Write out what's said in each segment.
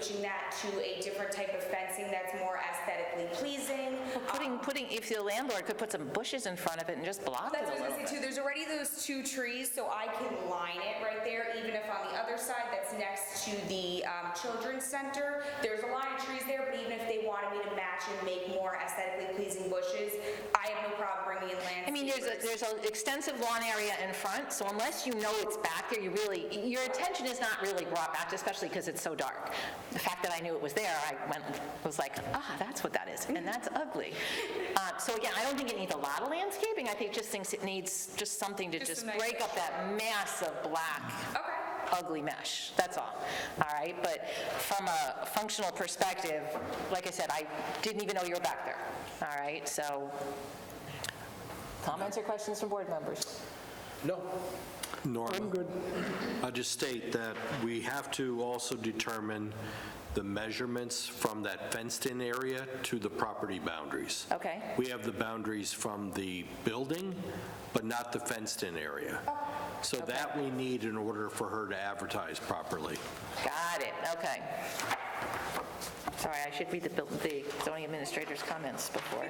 changing that to a different type of fencing that's more aesthetically pleasing. Putting, putting, if the landlord could put some bushes in front of it and just block it That's what I a was little gonna say bit. too, there's already those two trees, so I can line it right there, even if on the other side that's next to the um, children's center, there's a line of trees there, but even if they wanted me to match and make more aesthetically pleasing bushes, I have no problem bringing in landscapers. I mean, there's a, there's an extensive lawn area in front, so unless you know it's back there, you really, your attention is not really brought back, especially because it's so dark. The fact that I knew it was there, I went, was like, ah, that's what that is, and that's ugly. Uh, So again, I don't think it needs a lot of landscaping, I think just thinks it needs just something to Just just a nice break up that mass of black Okay. ugly mesh, that's all, all right? But from a functional perspective, like I said, I didn't even know you were back there, all right? So, comments or questions from board members? No. Norma. I'm good. I'll just state that we have to also determine the measurements from that fenced-in area to the property boundaries. Okay, We have the boundaries from the building, but not the fenced-in area. Oh, So that we need in order for her to advertise properly. got it, okay. Sorry, I should read the bill- the zoning administrator's comments before.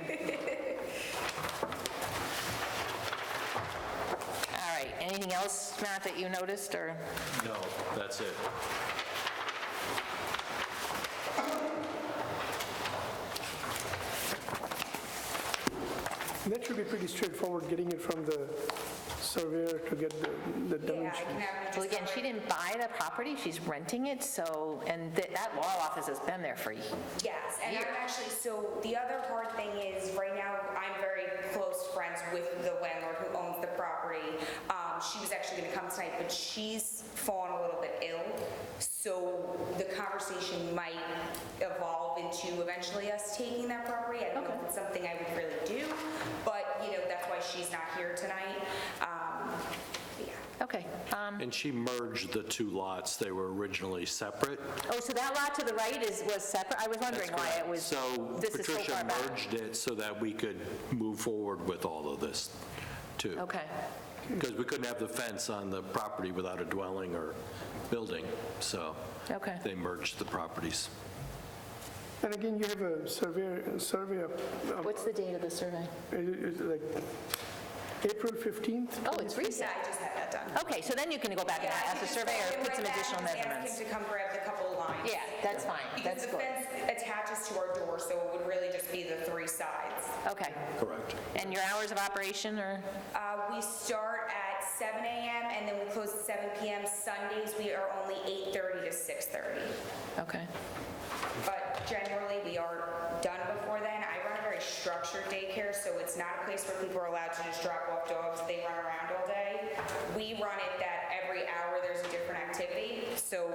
All right, anything else, Matt, that you noticed, or? No, that's it. Mm-hmm. That should be pretty straightforward, getting it from the surveyor to get the- the Yeah, I dimension. can have Well, you again, just. she didn't buy the property, she's renting it, so, and th- that law office has been there for Yes, and I'm actually, so the other hard thing is, right now, I'm very close friends with the landlord who owns the property. Um, she was actually gonna come tonight, but she's fallen a little bit ill, so the conversation might evolve into eventually us taking that property. I don't know if it's something I would really do, but, you know, that's why she's not here tonight. Um, but yeah. Okay. um, And she merged the two lots. They were originally separate. Oh, so that lot to the right is, was separate? I was wondering why it was, So this is so Patricia far back. merged it so that we could move forward with all of this, too. Okay, Because we couldn't have the fence on the property without a dwelling or building, so okay. they merged the properties. And again, you have a surveyor, survey of, of- What's the date of the survey? it- it's like April 15th? Oh, it's recent. Yeah, I just had that done. Okay, so then you can go back and Yeah, I can ask the just surveyor, phone him put right some back and additional just measurements. Ask him to come grab the couple of lines. Yeah, that's fine, Because that's the good. fence attaches to our door, so it would really just be the three sides. Okay. Correct. And your hours of operation are, Uh, We start at 7 AM and then we close at 7 PM. Sundays, we are only 8:30 to 6:30. okay, But generally, we are done before then. I run a very structured daycare, so it's not a place where people are allowed to just drop off dogs. They run around all day. We run it that every hour there's a different activity. So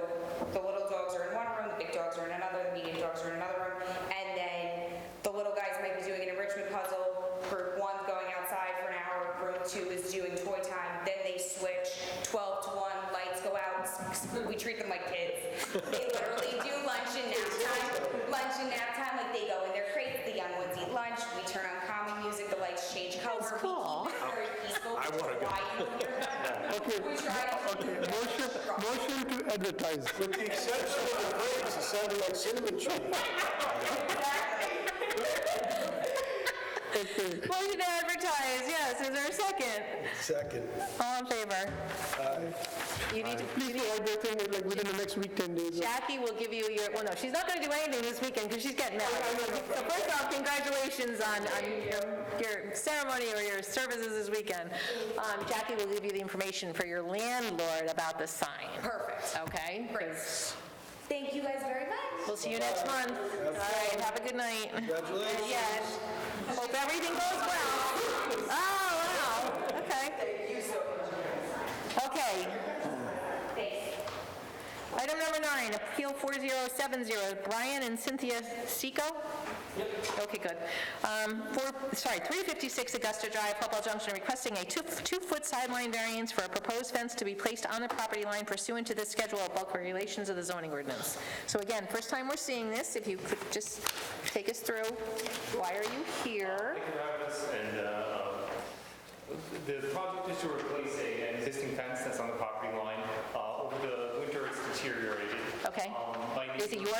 the little dogs are in one room, the big dogs are in another, the medium dogs are in another room. And then the little guys might be doing an enrichment puzzle. Group one's going outside for an hour, group two is doing toy time. Then they switch 12 to 1, lights go out. We treat them like kids. They literally do lunch and nap time, lunch and nap time, like they go in their crate, the young ones eat lunch, we turn on calming music, the lights change color. That's cool. Very peaceful, which is why you hear that. Okay. We try to- Okay, motion, motion to advertise. With the exception of the grapes, it sounded like cinnamon trees. Motion to advertise, yes, is there a second? Second. All in favor? You need to, Please provide the thing like within the next week, 10 days. Jackie will give you your, well, no, she's not going to do anything this weekend because she's getting married. So first off, congratulations on, on your- your ceremony or your services this weekend. Um, Jackie will give you the information for your landlord about the sign, Perfect. okay? Great. Thank you guys very much. We'll see you next month. All right, have a good night. Congratulations. Yeah, and hope everything goes well. Oh, wow, okay. Okay. Item number nine, Appeal 4070, Brian and Cynthia Seco? Okay, good. Um, Four, sorry, 356 Augusta Drive, Hopewell Junction, requesting a two- two-foot sideline variance for a proposed fence to be placed on the property line pursuant to the schedule of bulk regulations of the zoning ordinance. So again, first time we're seeing this, if you could just take us through, why are you here? apparatus and uh, um, the project is to replace a- an existing fence that's on the property line. Uh, Over the winter, it's deteriorated. Okay. Um, by Is it nature- your